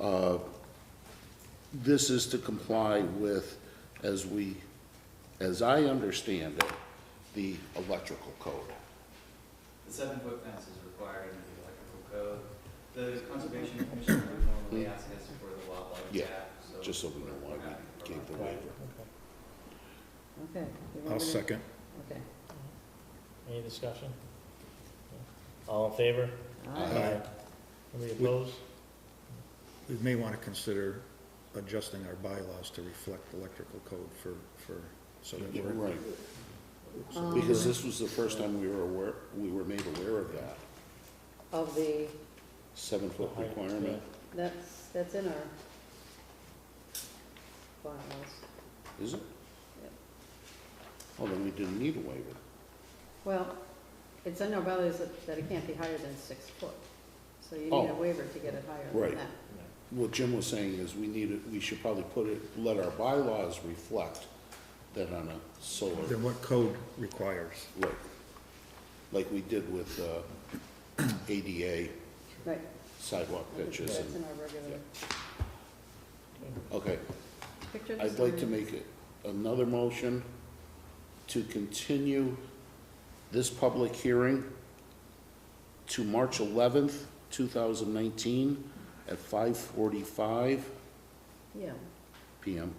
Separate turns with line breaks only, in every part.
Uh, This is to comply with, as we, as I understand it, the electrical code.
The seven-foot fence is required under the electrical code. The conservation commission would normally ask us for the wildlife
Yeah,
cap, so.
just so we know why
we're
we
not
gave the
providing-
waiver.
Okay. you want
I'll
me to-
second.
Okay.
Any discussion? All in favor?
All right.
Aye.
Anybody opposed?
We may want to consider adjusting our bylaws to reflect electrical code for, for, so that we're.
Right.
Um,
Because this was the first time we were aware, we were made aware of that,
Of the,
seven-foot
The height,
requirement.
that's, that's in our bylaws.
Is it?
Yep.
Well, then we didn't need a waiver.
Well, it's in our bylaws that that it can't be higher than six foot. So you need a
Oh.
waiver to get it higher
Right.
than that.
What Jim was saying is we need it, we should probably put it, let our bylaws reflect that on a solar,
Then what code requires?
like, like we did with, uh, ADA
Right.
sidewalk pitches
That's
and,
in our regular.
okay.
Picture this
I'd like to
on-
make it another motion to continue this public hearing to March eleventh, two thousand nineteen, at five forty-five
Yeah.
PM.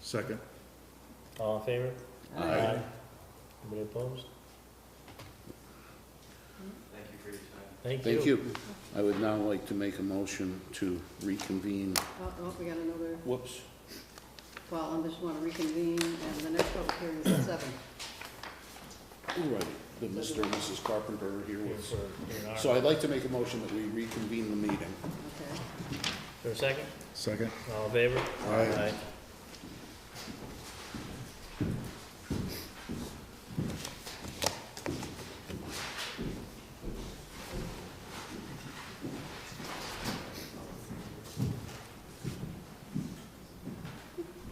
Second,
All in favor?
All
Aye.
right.
Anybody opposed?
Thank you for your time.
Thank you.
Thank you. I would now like to make a motion to reconvene,
Oh, oh, we got another,
whoops,
well, I just want to reconvene, and the next public hearing is at seven.
All right, the Mr. and Mrs. Carpenter are here
Here
with us.
for- here in our-
So I'd like to make a motion that we reconvene the meeting.
Okay.
For a second?
second.
All in favor?
Aye.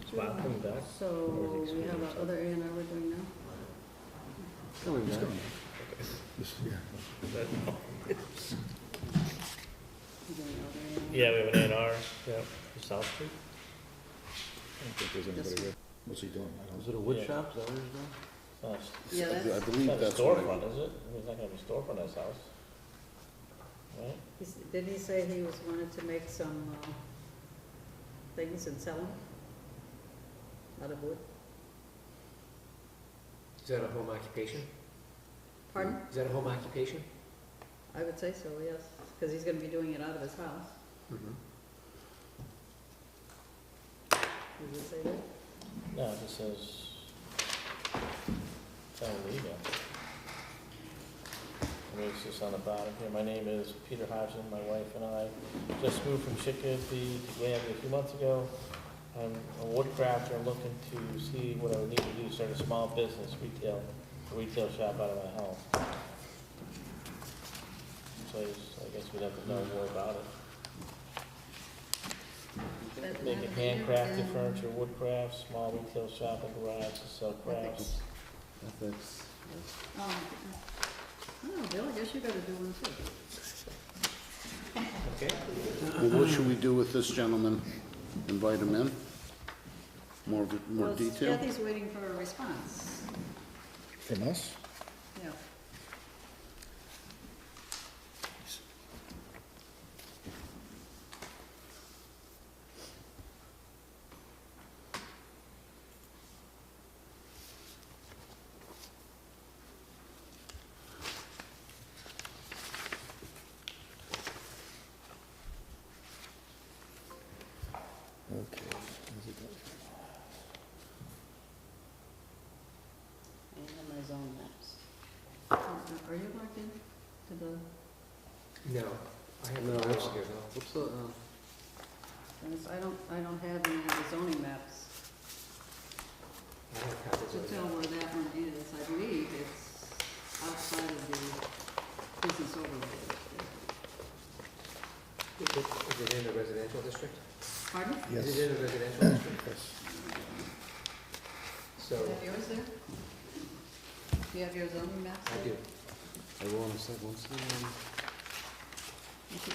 Is Bob coming back?
So we have our other A and R we're doing now?
This- yeah.
We're doing other A&R.
Yeah, we have an A and R, yeah, for South Street.
I don't think there's anybody there. What's he doing? I
Is
don't-
it a wood
Yeah.
shop, is that what it's doing?
Oh, It's
Yeah,
I
that's,
it's
believe
not a
that's what I-
storefront, is it? I mean, It's not gonna be a storefront at his house. Right?
he's- did he say he was wanted to make some, uh, things and sell them? Out of wood?
Is that a home occupation?
Pardon?
Is that a home occupation?
I would say so, yes, because he's gonna be doing it out of his house.
Mm-hmm.
Did he say that?
No, it just says, it's on legal. I mean, it's just on the bottom here, my name is Peter Hodgson, my wife and I just moved from Chicopee to Granby a few months ago. I'm a woodcrafter, looking to see what I would need to do, start a small business, retail, retail shop out of my home. So I just- I guess we'd have to know more about it. Making handcrafted furniture, woodcrafts, small retail shop and garage to sell crafts.
Ethics.
Oh, oh, Bill, I guess you gotta do one too.
Okay.
Well, what should we do with this gentleman? Invite him in? More, more
Well,
detail?
Kathy's waiting for a response,
From us?
yeah.
Okay. How's it going?
I have my zone maps. Are are you logged in to the,
No, I have no house here, no. What's the, um,
because I don't, I don't have any of the zoning maps
I don't have copies
to
of
tell
that.
where that one is. I believe it's outside of the business overlay.
Is it- is it in a residential district?
Pardon?
Is
Yes.
it in a residential district?
Yes.
So,
Do you have yours there? Do you have your zoning maps?
I
there?
do.
I think